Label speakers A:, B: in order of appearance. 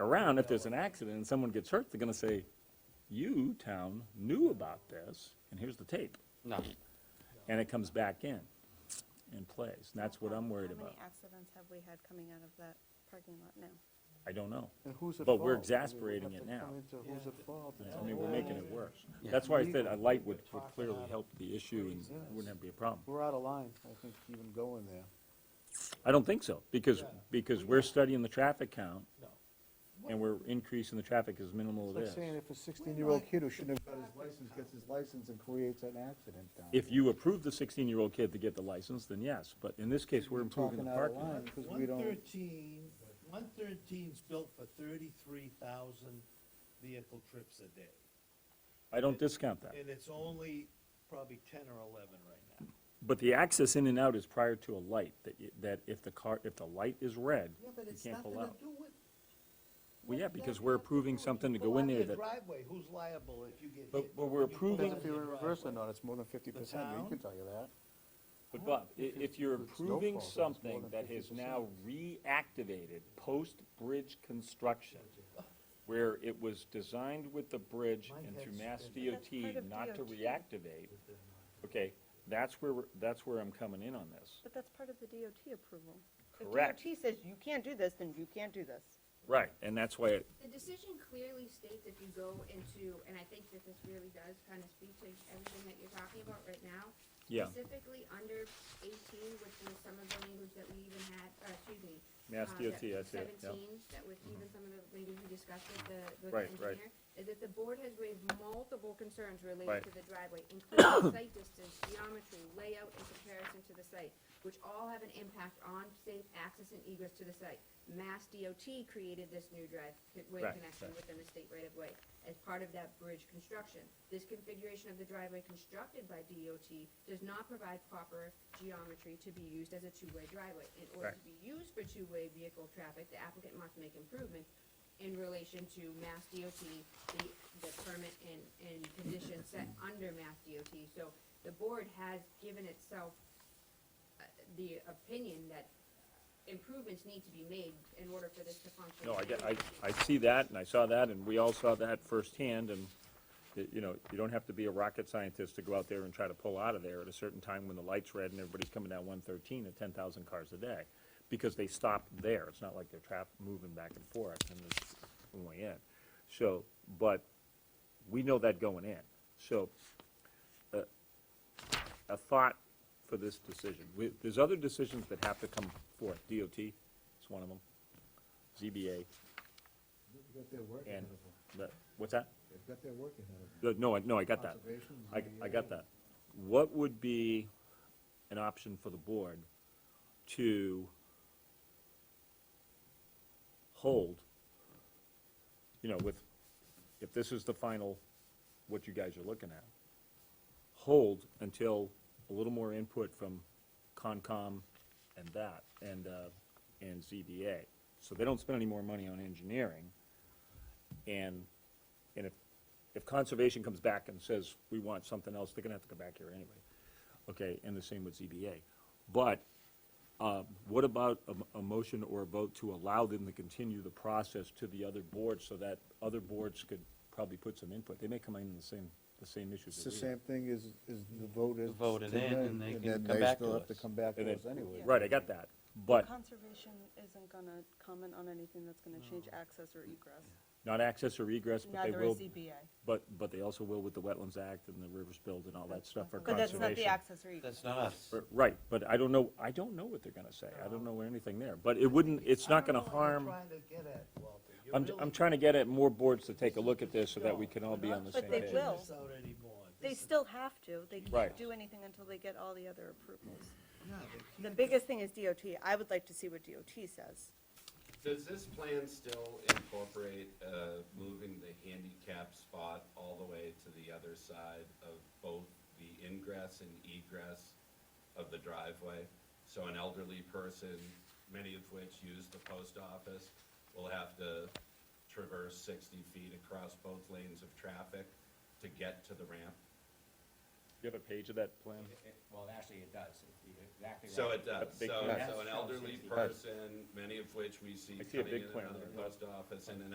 A: around, if there's an accident and someone gets hurt, they're gonna say, you, town, knew about this, and here's the tape.
B: No.
A: And it comes back in, and plays, and that's what I'm worried
C: How
A: about.
C: many accidents have we had coming out of that parking lot now?
A: I don't know.
D: And who's at
A: But
D: fault?
A: we're
D: I mean, we have
A: exasperating
D: to
A: it
D: come
A: now.
D: into Who's at fault? It's
A: I
D: a
A: mean, we're
D: whole-
A: making it worse.
B: Yeah.
A: That's why I said a light would would clearly help the issue and wouldn't have be a problem.
D: We're out of line, I think, even going there.
A: I don't think so, because,
E: Yeah.
A: because we're studying the traffic count,
E: No.
A: and we're increasing the traffic as minimal
D: It's
A: it
D: like
A: is.
D: saying if a sixteen-year-old kid who shouldn't have got his license gets his license and creates an accident down.
A: If you approve the sixteen-year-old kid to get the license, then yes, but in this case, we're improving the parking lot.
D: Because we
E: One
D: don't,
E: thirteen, one thirteen's built for thirty-three thousand vehicle trips a day.
A: I don't discount that,
E: And it's only probably ten or eleven right now.
A: but the access in and out is prior to a light, that, y- that if the car, if the light is red,
E: Yeah, but
A: you
E: it's
A: can't
E: nothing
A: pull
E: to
A: out.
E: do with.
A: Well, yeah,
E: what does
A: because
E: that
A: we're
E: have to do
A: approving
E: with- you
A: something to
E: pull
A: go in
E: out
A: there
E: your
A: that-
E: Driveway, who's liable if you get hit?
A: But- but we're
E: when you pull
A: approving-
E: out
D: if you're
E: your
D: reversing
E: driveway?
D: on, it's more than fifty percent,
E: town?
D: you can tell you that.
A: But Bob, i- if you're
D: It's no
A: approving
D: fault, it's more
A: something
D: than
A: that is now reactivated post-bridge construction, where it was designed with the bridge
E: My
A: and through
E: head's
A: Mass
E: spinning.
C: That's part
A: DOT
C: of
A: not to
C: DOT.
A: reactivate, okay, that's where, we're- that's where I'm coming in on this.
C: But that's part of the DOT approval.
A: Correct.
C: If DOT says you can't do this, then you can't do this.
A: Right, and that's why, it-
F: The decision clearly states if you go into, and I think that this really does kind of speak to everything that you're talking about right now.
A: Yeah.
F: Specifically under eighteen, which was some of the language that we even had, uh, excuse me.
A: Mass
F: uh,
A: DOT, I
F: that-
A: see it, yeah.
F: Seventeen, that was even some of the language we discussed with the, with
A: Right,
F: the
A: right.
F: engineer. Is that the board has raised multiple concerns
A: Right.
F: related to the driveway, including site distance, geometry, layout, and comparison to the site, which all have an impact on safe access and egress to the site. Mass DOT created this new driveway
A: Right,
F: connection
A: right.
F: within the state right of way as part of that bridge construction. This configuration of the driveway constructed by DOT does not provide proper geometry to be used as a two-way driveway. In order to be used for two-way vehicle traffic, the applicant must make improvements in relation to Mass DOT, the, the permit and, and conditions set under Mass DOT. So the board has given itself uh, the opinion that improvements need to be made in order for this to function.
A: no, I, get- I, I see that, and I saw that, and we all saw that firsthand, and, y- you know, you don't have to be a rocket scientist to go out there and try to pull out of there at a certain time when the light's red and everybody's coming down one thirteen at ten thousand cars a day, because they stopped there, it's not like they're trapped, moving back and forth, and it's going in. So, but, we know that going in, so, uh, a thought for this decision. We- There's other decisions that have to come forth. DOT is one of them, ZBA,
G: They've got their work ahead
A: and,
G: of them.
A: the- what's that?
G: They've got their work ahead of them.
A: Uh, No, I- no, I got that.
G: Conservation,
A: I, I got
G: ZBA.
A: that. What would be an option for the board to hold, you know, with, if this is the final, what you guys are looking at, hold until a little more input from Concom and that, and, uh, and ZBA. So they don't spend any more money on engineering. And, and if, if conservation comes back and says, we want something else, they're gonna have to come back here anyway. Okay, and the same with ZBA. But, uh, what about a, a motion or a vote to allow them to continue the process to the other boards so that other boards could probably put some input? They may come in the same, the same issues
D: It's
A: that
D: the
A: we have.
D: same thing as, as the vote is.
B: Vote it
D: to
B: in,
D: them,
B: and they can
D: then
B: come back
D: still
B: to
D: have
B: us.
D: come back
A: And
D: to
A: then-
D: us anyway.
A: Right, I got that, but
C: Conservation isn't gonna comment on anything that's gonna change access or egress.
A: not access or egress, but they
C: Neither is
A: will,
C: ZBA.
A: but, but they also will with the Wetlands Act and the Rivers Build and all that stuff for
C: But that's
A: conservation.
C: not the access or egress.
B: That's not us.
A: R- Right, but I don't know, I don't know what they're gonna say, I don't know anything there, but it wouldn't, it's not gonna harm,
E: I don't know what you're trying to get at, Walter. You're
A: I'm,
E: really
A: I'm trying to get at more boards to take a look at this so that we
E: No,
A: can all
E: we're
A: be
E: not
A: on the
C: But
A: same
C: they
A: page.
C: will.
E: stretching this out anymore.
C: They
E: This is-
C: still have to. They
A: Right.
C: can't do anything until they get all the other approvals.
E: No, they
C: The
E: keep-
C: biggest thing is DOT. I would like to see what DOT says.
H: Does this plan still incorporate, uh, moving the handicap spot all the way to the other side of both the ingress and egress of the driveway? So an elderly person, many of which use the post office, will have to traverse sixty feet across both lanes of traffic to get to the ramp?
A: You have a page of that plan?
I: It- it- Well, actually, it does. It- you're exactly right.
H: So it does,
A: big
H: so,
A: plan.
H: so an elderly person, many of which we see
A: I see a
H: coming in
A: big
H: and
A: plan
H: out of
A: there,
H: the
A: yeah.
H: post office and an